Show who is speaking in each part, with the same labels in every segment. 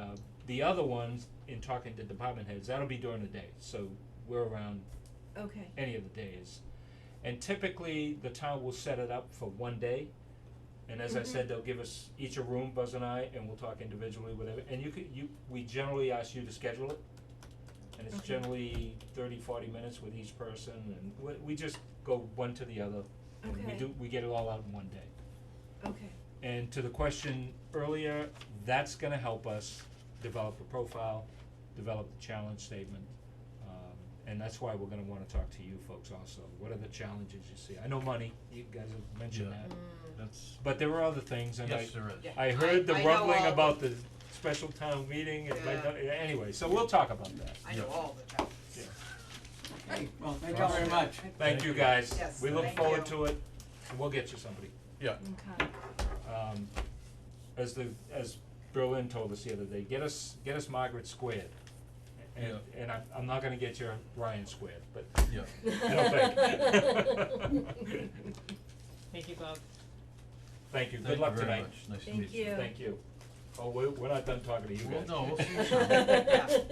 Speaker 1: Uh, The other ones, in talking to department heads, that'll be during the day, so we're around
Speaker 2: Okay,
Speaker 1: any of the days. And typically, the town will set it up for one day. And as I
Speaker 2: Mhm.
Speaker 1: said, they'll give us each a room, Buzz and I, and we'll talk individually, whatever, and you could, you, we generally ask you to schedule it. And it's
Speaker 2: Okay.
Speaker 1: generally 30, 40 minutes with each person, and we, we just go one to the other, and we
Speaker 2: Okay.
Speaker 1: do, we get it all out in one day.
Speaker 2: okay,
Speaker 1: And to the question earlier, that's gonna help us develop a profile, develop the challenge statement. Um, and that's why we're gonna wanna talk to you folks also. What are the challenges you see? I know money, you guys have mentioned
Speaker 3: Yeah.
Speaker 1: that.
Speaker 3: That's,
Speaker 1: But there were other things and I,
Speaker 3: yes, there is.
Speaker 4: Yeah.
Speaker 1: I heard the
Speaker 4: I- I know
Speaker 1: rumbling
Speaker 4: all of
Speaker 1: about the special town meeting and my,
Speaker 4: Yeah.
Speaker 1: anyway, so we'll talk about that.
Speaker 4: I know
Speaker 3: Yeah.
Speaker 4: all the challenges.
Speaker 1: Yeah.
Speaker 5: Okay, well, thank you
Speaker 3: Well,
Speaker 5: very much.
Speaker 1: Thank you guys.
Speaker 4: Yes,
Speaker 1: We look
Speaker 4: thank
Speaker 1: forward
Speaker 4: you.
Speaker 1: to it and we'll get you somebody.
Speaker 3: Yeah,
Speaker 2: okay,
Speaker 1: um, as the, as Berlin told us the other day, get us, get us Margaret squared. And,
Speaker 3: Yeah.
Speaker 1: and I'm, I'm not gonna get your Ryan squared, but
Speaker 3: yeah.
Speaker 1: I don't think.
Speaker 6: Thank you, Bob.
Speaker 1: Thank you,
Speaker 3: Thank
Speaker 1: good luck
Speaker 3: very
Speaker 1: tonight.
Speaker 3: much. Nice to
Speaker 2: Thank
Speaker 3: meet you.
Speaker 2: you.
Speaker 1: Thank you. Oh, we're, we're not done talking to you
Speaker 3: Well,
Speaker 1: guys.
Speaker 3: no, Oh, we'll see you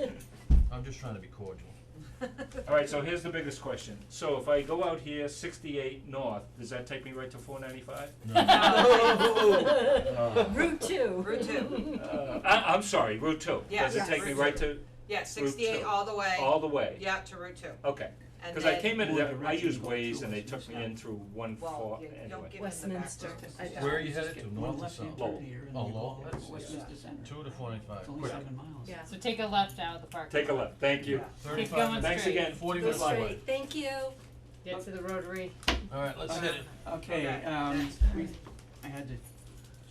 Speaker 3: I'm just trying to be cordial.
Speaker 1: Alright, so here's the biggest question. So if I go out here sixty-eight north, does that take me right to four ninety-five?
Speaker 3: No,
Speaker 4: Uh,
Speaker 3: Uh.
Speaker 2: Route two.
Speaker 4: Route two.
Speaker 1: Uh, I, I'm sorry, Route two.
Speaker 4: Yeah,
Speaker 1: Does it
Speaker 4: yeah,
Speaker 1: take me
Speaker 4: Route
Speaker 1: right
Speaker 4: two.
Speaker 1: to,
Speaker 4: Yeah, sixty-eight
Speaker 1: two.
Speaker 4: all the way.
Speaker 1: all the way?
Speaker 4: Yeah, to Route two.
Speaker 1: Okay,
Speaker 4: And
Speaker 1: cause I
Speaker 4: then-
Speaker 1: came in,
Speaker 5: More
Speaker 1: there- I
Speaker 5: direction
Speaker 1: used
Speaker 5: going
Speaker 1: Waze
Speaker 5: through
Speaker 1: and they
Speaker 5: is
Speaker 1: took me
Speaker 5: not-
Speaker 1: in through one four
Speaker 4: Well, you
Speaker 1: anyway.
Speaker 4: don't give them the back.
Speaker 2: Westminster.
Speaker 4: roads.
Speaker 2: I don't-
Speaker 3: Where are you headed
Speaker 5: Get
Speaker 3: to,
Speaker 5: one
Speaker 3: north or
Speaker 5: left hand
Speaker 3: south?
Speaker 1: Lowell.
Speaker 5: turn here and
Speaker 3: Oh,
Speaker 5: then we
Speaker 3: Lowell,
Speaker 5: go
Speaker 3: that's- yeah.
Speaker 5: Westminster Center.
Speaker 3: Two to forty-five.
Speaker 5: It's only
Speaker 1: Quick.
Speaker 5: seven miles.
Speaker 2: Yeah.
Speaker 6: So take a left out of the park.
Speaker 1: Take a look, thank you.
Speaker 4: Yeah.
Speaker 6: Keep
Speaker 3: Thirty-five
Speaker 6: going
Speaker 3: minutes.
Speaker 1: Thanks
Speaker 6: straight.
Speaker 1: again.
Speaker 3: Forty
Speaker 2: Go
Speaker 3: minutes.
Speaker 2: straight, thank you.
Speaker 6: Get to the rotary.
Speaker 3: All right, let's hit it.
Speaker 5: Okay,
Speaker 4: Okay.
Speaker 5: um, we, I had to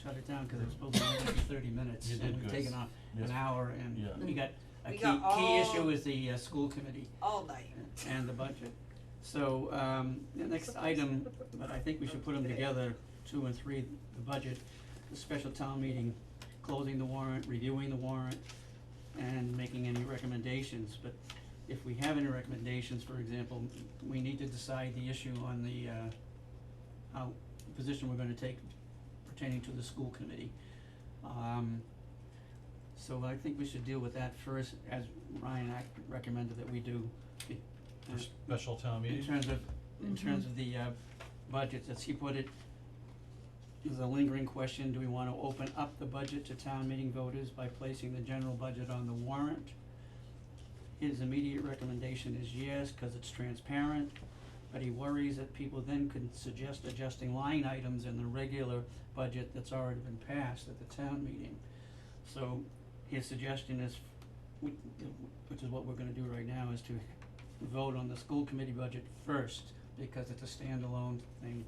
Speaker 5: shut it down because it was supposed to be for thirty minutes
Speaker 3: You did
Speaker 5: and we've
Speaker 3: good.
Speaker 5: taken off
Speaker 3: Yes.
Speaker 5: an hour and
Speaker 3: Yeah.
Speaker 5: we got, a
Speaker 4: We
Speaker 5: key,
Speaker 4: got
Speaker 5: key
Speaker 4: all-
Speaker 5: issue is the uh, school committee
Speaker 4: All night.
Speaker 5: and the budget. So, um, the next item, but I think we should put them together, two and three, the budget, the special town meeting, closing the warrant, reviewing the warrant, and making any recommendations, but if we have any recommendations, for example, we need to decide the issue on the, uh, how, position we're gonna take pertaining to the school committee. Um, so I think we should deal with that first, as Ryan ac- recommended that we do, be-
Speaker 3: For special town
Speaker 5: um, in
Speaker 3: meeting.
Speaker 5: terms of, in terms of the, uh, budgets, as he put it, there's a lingering question, do we wanna open up the budget to town meeting voters by placing the general budget on the warrant? His immediate recommendation is yes, cause it's transparent, but he worries that people then could suggest adjusting line items in the regular budget that's already been passed at the town meeting. So his suggestion is, we- which is what we're gonna do right now, is to vote on the school committee budget first, because it's a standalone thing,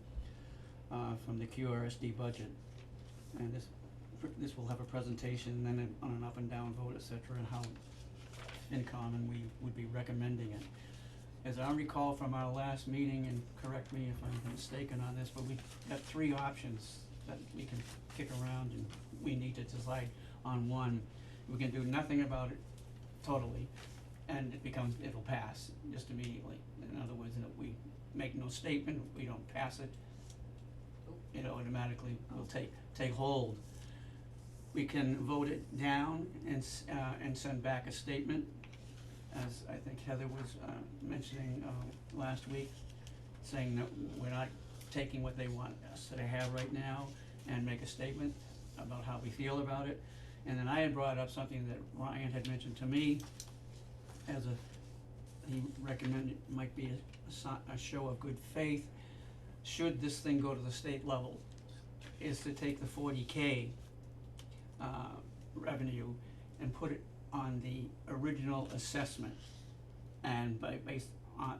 Speaker 5: uh, from the QRSD budget. And this, this will have a presentation, then an- on an up and down vote, et cetera, and how in common we would be recommending it. As I recall from our last meeting, and correct me if I'm mistaken on this, but we got three options that we can kick around and we need to decide on one. We can do nothing about it totally, and it becomes, it'll pass just immediately. In other words, that we make no statement, we don't pass it, it automatically will take, take hold. We can vote it down and, s- uh, and send back a statement, as I think Heather was, uh, mentioning, uh, last week, saying that we're not taking what they want us to have right now and make a statement about how we feel about it. And then I had brought up something that Ryan had mentioned to me as a, he recommended it might be a, si- a show of good faith, should this thing go to the state level, is to take the forty K uh revenue and put it on the original assessment. And by based on,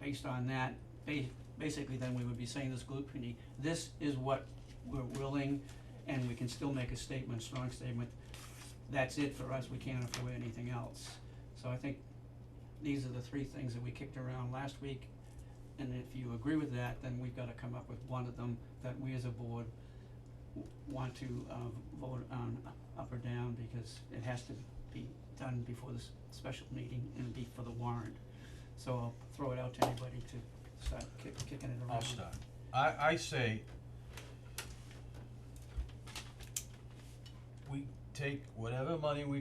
Speaker 5: based on that, ba- basically then we would be saying to the school committee, this is what we're willing and we can still make a statement, strong statement, that's it for us, we can't afford anything else. So I think these are the three things that we kicked around last week. And if you agree with that, then we've gotta come up with one of them that we as a board w- want to uh vote on up or down because it has to be done before this special meeting and be for the warrant. So I'll throw it out to anybody to start kick kicking it around.
Speaker 3: I'll start. I, I say we take whatever money we